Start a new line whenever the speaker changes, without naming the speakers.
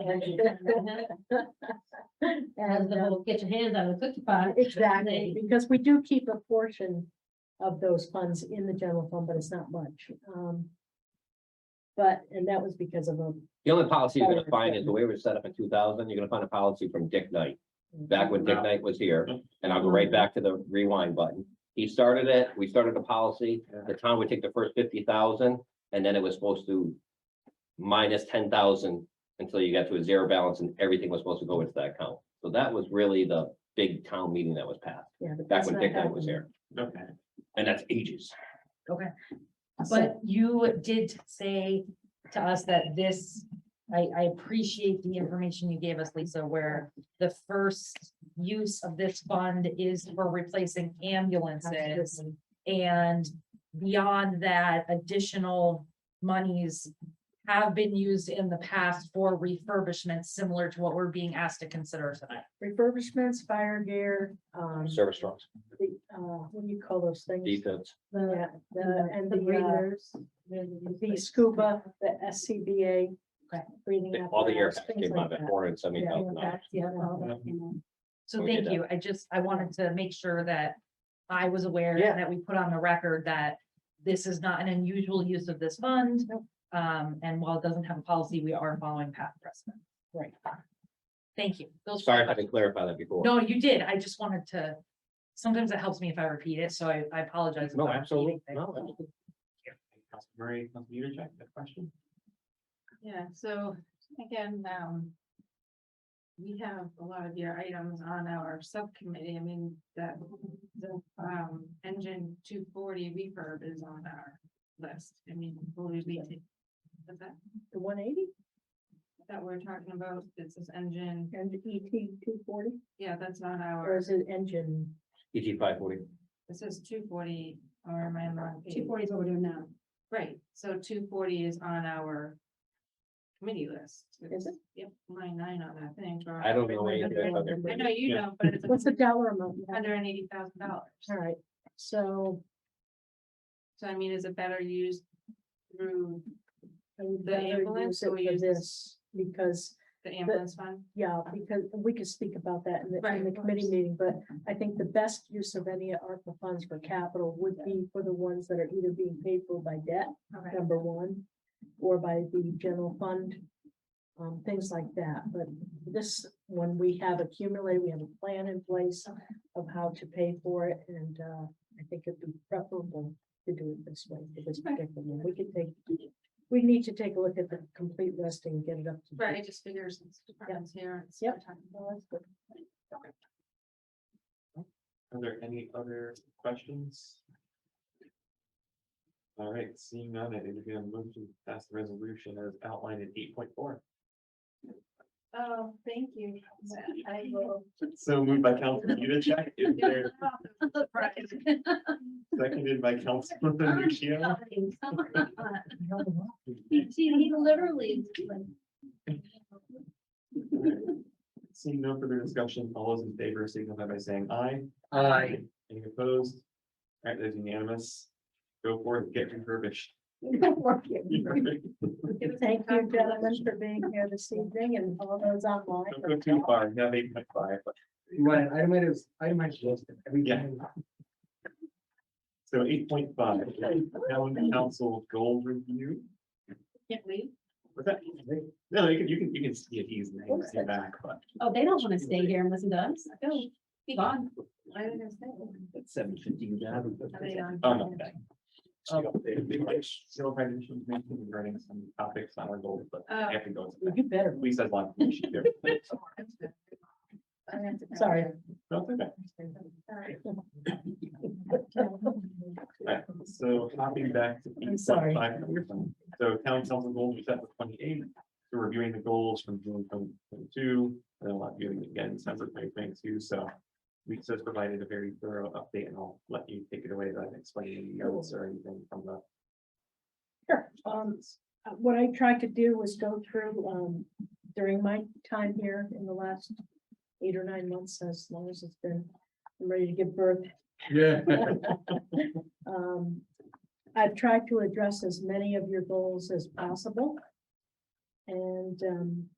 As
And,
the
uh,
whole get your hands out of the cookie pot.
Exactly, because we do keep a portion of those funds in the general fund, but it's not much. Um, But, and that was because of a.
The only policy you're gonna
Fire
find is the way it was set up in two thousand, you're gonna find a policy from Dick Knight,
Mm-hmm.
back when Dick Knight was here, and I'll go right back to the rewind button. He started it, we started the policy, the town would take the first fifty thousand, and then it was supposed to minus ten thousand until you got to a zero balance and everything was supposed to go into that account. So that was really the big town meeting that was passed,
Yeah, but
back
that's
when
not
Dick Knight was
happening.
here,
Okay.
and that's ages.
But you did say to us that this, I, I appreciate the information you gave us, Lisa, where the first use of this fund is for replacing ambulances.
Absolutely.
And beyond that, additional monies have been used in the past for refurbishments, similar to what we're being asked to consider tonight.
Refurbishments, fire gear, um,
Service trucks,
the, uh, what do you call those things?
defense,
Yeah, the, and
the
the, uh, the scuba, the SCBA.
Okay.
breathing
all the air
apparatus,
packs
things
came
like
out at
that.
four hundred seventy
Yeah,
thousand dollars.
impacts, yeah, all that came out.
So
We did
thank
that.
you. I just, I wanted to make sure that I was aware
Yeah.
that we put on the record that this is not an unusual use of this fund.
Nope.
Um, and while it doesn't have a policy, we are following past precedent.
Right.
Thank you. Those.
Sorry if I didn't clarify that before.
No, you did. I just wanted to, sometimes it helps me if I repeat it, so I, I apologize. if
No,
I'm repeating
absolutely,
things.
no, absolutely.
Council Murray, Council Utrecht, that question?
Yeah, so again, um. We have a lot of your items on our subcommittee. I mean, that, the, um, engine two forty refurb is on our list. I mean, will we be ta- Is that,
The one eighty
that we're talking about, it's this engine,
and the ET two forty,
yeah, that's on
or
our,
is it engine?
EG five forty.
it says two forty, or am I on the wrong? page?
forty is what we're doing now.
Right, so two forty is on our committee list.
Is it?
Yep, line nine on that thing. or-
I don't know anything about their.
I know you
Yeah.
don't, but it's.
What's the dollar amount? now?
hundred and eighty thousand
All
dollars.
right, so.
So I mean, is it better used through
I would
The
rather
ambulance,
use it
or we
for
use
this, because,
the ambulance fund?
yeah, because we could speak about that in the,
Right,
in the
of
committee
course.
meeting, but I think the best use of any ARPA funds for capital would be for the ones that are either being paid for by debt,
Okay,
number one, or by the general fund, um, things like that, but this, when we have accumulated, we have a plan in place
Okay.
of how to pay for it, and, uh, I think it'd be preferable to do it this way, for this
Okay.
particular one. we could take, we need to take a look at the complete list and get it up to.
right, I just figures since departments here. it's
Yep.
time.
Are there any other questions? All right, seeing none, I think we're gonna move to pass the resolution as outlined in eight point four.
Oh, thank you. I will.
So moved by Council Utrecht, is there
Right.
seconded by Council Nuccio?
He literally.
Seeing no further discussion, all those in favor signify by saying aye. Any opposed? All right, there's unanimous. Go forth, get refurbished.
Thank you, gentlemen, for being here this evening and all those online.
Don't go too far, you have eight point five, but
Right, I might have, I might have lost it every
Yeah.
time.
so eight point five, town council goal review.
Can't leave.
Was that, no, you can, you can, you can see it easily, you can see back, but
Oh, they don't want to stay here and listen to us. Go, be gone.
Why did I say that?
It's seven fifty, you got
Are they on?
Oh, no. um, still probably should be running some topics on our goals, but
Oh.
after goes.
You better,
At least as long as we should do. it.
I have to go.
sorry.
No, it's okay.
All right.
Right, so hopping back to.
I'm sorry.
8.5. So town council goals we set for twenty-eight, so reviewing the goals from June twenty-two, and then a lot viewing again, December twenty-twenty-two, so. We just provided a very thorough update and I'll let you take it away, without explaining the notes or anything from the.
Sure, um, uh, what I tried to do was go through, um, during my time here in the last eight or nine months, as long as it's been, I'm ready to give birth.
Yeah.
Um, I've tried to address as many of your goals as possible. And, um,